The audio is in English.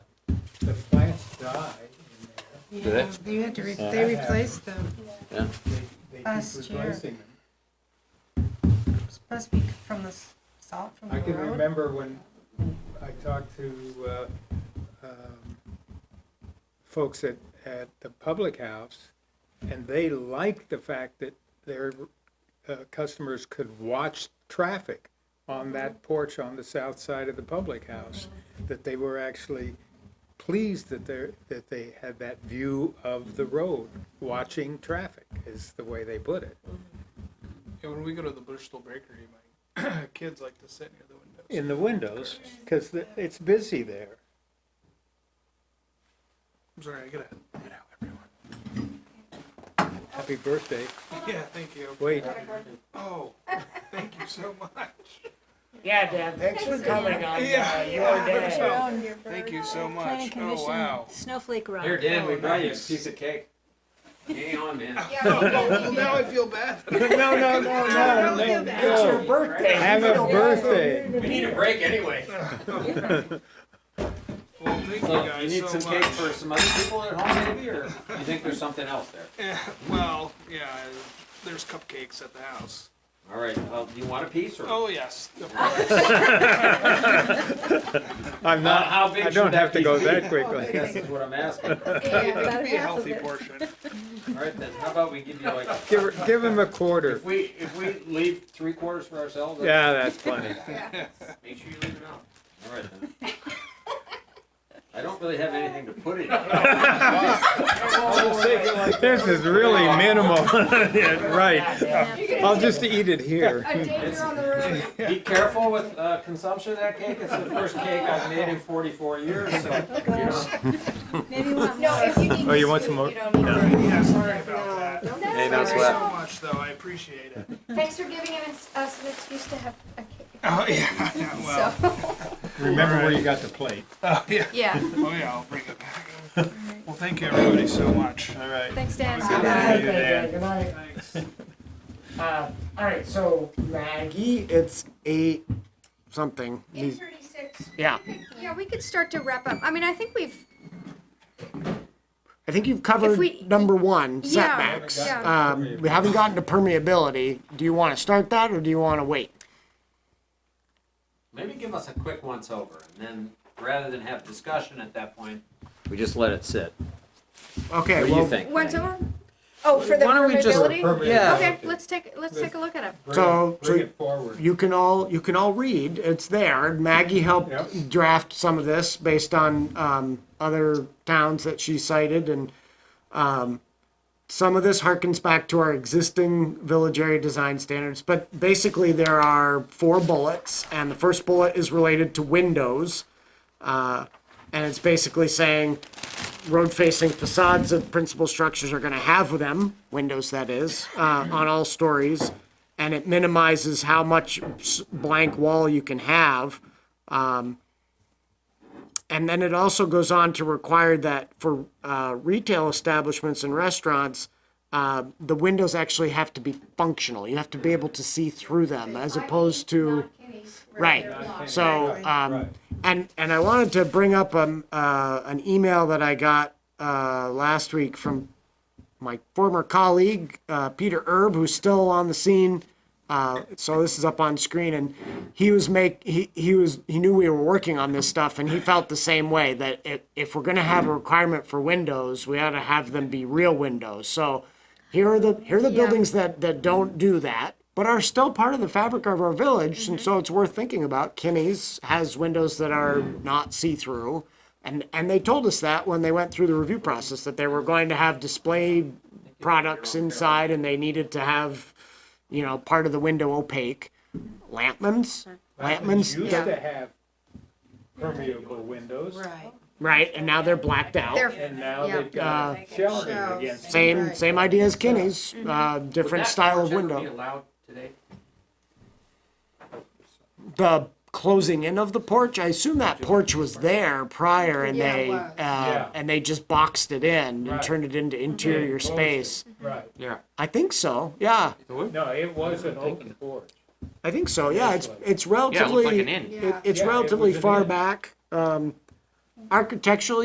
the plants die in there. Do they? Yeah, They had to, re- Yeah. they replaced them. They, they Last keep year. replacing them. It's Supposed to be from the s- salt from I the can road. remember when I talked to, uh, um, folks at, at the public house, and they liked the fact that their, uh, customers could watch traffic on that porch on the south side of the public house, that they were actually pleased that they're, that they had that view of the road, watching traffic, is the way they put it. Yeah, when we go to the Bristol Bakery, my kids like to sit near the windows. in the windows, because it's busy there. I'm sorry, I gotta head out, everyone. Happy birthday. Yeah, thank you. Wait, Oh, thank you so much. Yeah, Deb, thanks for coming on uh, Yeah. your day. Thank you so Planning much. Oh, Commission, wow. Snowflake Run. Here, Dan, we Oh, brought you a nice. piece of cake. Hang on, man. Well, now I feel bad. no, no, no, no, no, It's your no. birthday. Have a birthday. We need a break anyway. Well, thank you So you guys need so some cake much. for some other people at home maybe, or you think there's something else there? Yeah, well, yeah, there's cupcakes at the house. All right, uh, do you want a piece or? Oh, yes. of course. I'm How- not, How big I should don't have to piece go be? that I quickly. guess is what I'm asking. It could be a healthy portion. All right, then, how about we give you like, Give, her- give him a quarter. if we, if we leave three quarters for ourselves? that's- Yeah, that's plenty. Make sure you leave it out. All right, then. I don't really have anything to put in. I'll just take it like This is really minimal. Yeah, Right. Yeah, I'll just eat it here. Be careful with uh, consumption of that cake. It's the first cake I've made in 44 years. Oh So, you know. Maybe you want No, more. if you need Oh, you this want some food, more? You don't need it. Yeah, sorry about that. No, Hey, no, no Thanks no. sweat. so much, though. I appreciate it. Thanks for giving us us an excuse to have a cake. Oh, yeah, yeah, well, So, Remember where you got the plate. oh, yeah. yeah. Oh, yeah, I'll bring it back. Well, thank you, everybody, so much. All right. Thanks, Dan. Good Yeah, night, you're there. good night. Thanks. Uh, all right, so Maggie, It's eight something. Eight thirty-six. Yeah. Yeah, we could start to wrap up. I mean, I think we've, I think you've If covered we- number one, Yeah, setbacks. yeah. Um, we haven't gotten to permeability. Do you want to start that or do you want to wait? Maybe give us a quick once over, and then rather than have discussion at that point, we just let it sit. Okay, What do well, you think? went over? Oh, for the Why don't we just- permeability? Yeah. Okay, let's take, let's take a look at it. Bring it- So- so- Bring it forward. you can all you can all read. It's there. Maggie helped Yep. draft some of this based on um, other towns that she cited, and um, some of this harkens back to our existing village area design standards. But basically, there are four bullets, and the first bullet is related to windows, uh, and it's basically saying road-facing facades of principal structures are going to have them, windows that is, uh, on all stories, and it minimizes how much s- blank wall you can have. Um, and then it also goes on to require that for uh, retail establishments and restaurants, uh, the windows actually have to be functional. You have to be able to see through them, as opposed to. Right. So, um, and, and I wanted to bring up, um, uh, an email that I got, uh, last week from my former colleague, uh, Peter Erb, who's still on the scene. Uh, so this is up on screen and he was make, he, he was, he knew we were working on this stuff and he felt the same way that if, if we're going to have a requirement for windows, we ought to have them be real windows. So here are the, here are the buildings that, that don't do that, but are still part of the fabric of our village. And so it's worth thinking about. Kinney's has windows that are not see-through. And, and they told us that when they went through the review process, that they were going to have display products inside and they needed to have, you know, part of the window opaque. Lampman's, Lampman's, Used yeah, to have permeable windows, Right. right, and now they're blacked out. Uh, They're, and now Yeah. they've got shelving against it. Same, Right. same idea as Kinney's, uh, different style of Would that porch ever window. be allowed today? The closing in of the porch, I assume that porch was there prior and Yeah, it they, was. uh, and they just boxed it in and turned it into interior Closed it. space. Right. Yeah. I think so, yeah. No, it was an open porch. I think so. Yeah, it's it's relatively Yeah. it, it's Yeah, it relatively was an far inn. back. Um, architecturally,